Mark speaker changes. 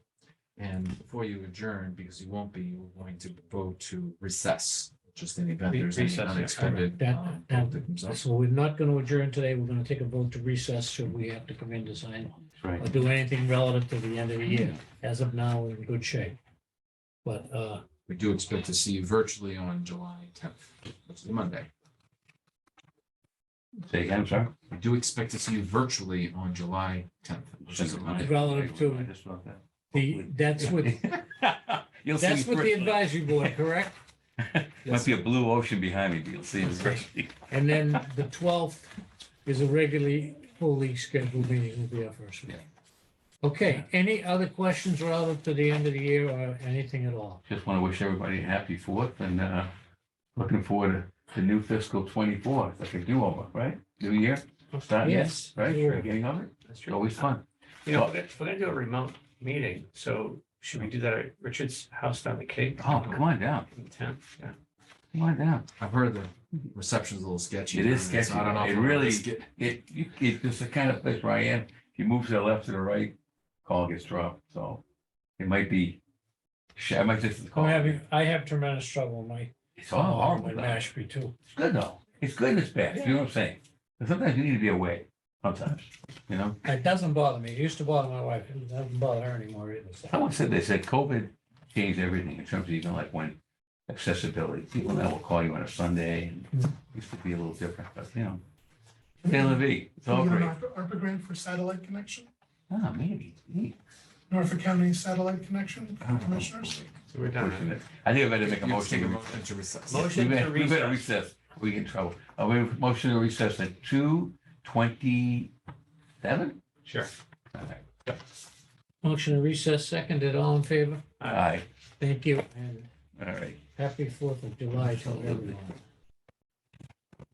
Speaker 1: And before you adjourn, because you won't be, we're going to go to recess, just in the event there's any
Speaker 2: Recess, yeah.
Speaker 1: unexpected.
Speaker 3: That-
Speaker 1: um,
Speaker 3: that-
Speaker 1: that comes up.
Speaker 3: So we're not going to adjourn today. We're going to take a vote to recess should we have to come in to sign
Speaker 2: Right.
Speaker 3: or do anything relative to the end of the year. As of now, we're in good shape. But uh,
Speaker 1: We do expect to see you virtually on July tenth, which is Monday.
Speaker 2: Say again, sir?
Speaker 1: We do expect to see you virtually on July tenth, which is a Monday.
Speaker 3: Relative to-
Speaker 2: I just wrote that.
Speaker 3: the, that's what,
Speaker 2: You'll see.
Speaker 3: that's
Speaker 2: me
Speaker 3: what the
Speaker 2: personally.
Speaker 3: advisory board, correct?
Speaker 2: Might be a blue ocean behind me, but you'll see. me personally.
Speaker 3: And then the 12th is a regularly fully scheduled meeting with the first meeting. Okay, any other questions relative to the end of the year or anything at all?
Speaker 2: Just want to wish everybody a happy fourth and uh, looking forward to the new fiscal twenty-four, like a do-over, right? New year, starting, it,
Speaker 3: Yes.
Speaker 2: right?
Speaker 3: sure.
Speaker 2: Beginning of it,
Speaker 4: That's
Speaker 2: it's
Speaker 4: true.
Speaker 2: always fun.
Speaker 4: You know, we're gonna- we're gonna do a remote meeting, so should we do that at Richard's house down the Cape?
Speaker 2: Oh, come on down,
Speaker 4: The tenth, yeah.
Speaker 2: come on down.
Speaker 1: I've heard the
Speaker 3: Mm-hmm.
Speaker 1: reception's a little sketchy.
Speaker 2: It is
Speaker 1: so I
Speaker 2: sketchy.
Speaker 1: don't know if
Speaker 2: It
Speaker 1: I'm gonna
Speaker 2: really-
Speaker 1: risk it.
Speaker 2: It, you- it's just the kind of place where I am, if you move to the left or the right, call gets dropped, so it might be, sh- I might just call.
Speaker 3: I'm having, I have tremendous trouble with my,
Speaker 2: It's all
Speaker 4: Oh,
Speaker 2: horrible.
Speaker 3: with
Speaker 2: though.
Speaker 3: Oh, Mashpee too.
Speaker 2: It's good though. It's good and it's bad. You know what I'm saying? But sometimes you need to be away. Sometimes, you know.
Speaker 3: It doesn't bother me. It used to bother my wife. It doesn't bother her anymore either. so.
Speaker 2: Someone said they said COVID changed everything in terms of even like when accessibility. People now will call you on a Sunday. and
Speaker 4: Mm-hmm.
Speaker 2: it Used to be a little different, but you know. Taylor V, it's all
Speaker 5: You know,
Speaker 2: great.
Speaker 5: ARPA ARPA grant for satellite connection,
Speaker 2: Ah, maybe. Gee,
Speaker 5: Norfolk County satellite connection,
Speaker 2: I don't know.
Speaker 5: commissioners.
Speaker 4: So we're done.
Speaker 2: Fortunate. I think I better
Speaker 1: You
Speaker 2: make a
Speaker 1: have to Take a
Speaker 2: motion.
Speaker 1: motion to recess.
Speaker 4: Motion
Speaker 2: We
Speaker 4: to
Speaker 2: may- we better
Speaker 4: recess.
Speaker 2: recess. We get in trouble. Uh, we have a motion to recess at two twenty-seven?
Speaker 4: Sure.
Speaker 2: All right.
Speaker 3: Motion to recess seconded. All in favor?
Speaker 2: Aye.
Speaker 3: Thank you and
Speaker 2: All right.
Speaker 3: happy Fourth of July to everyone.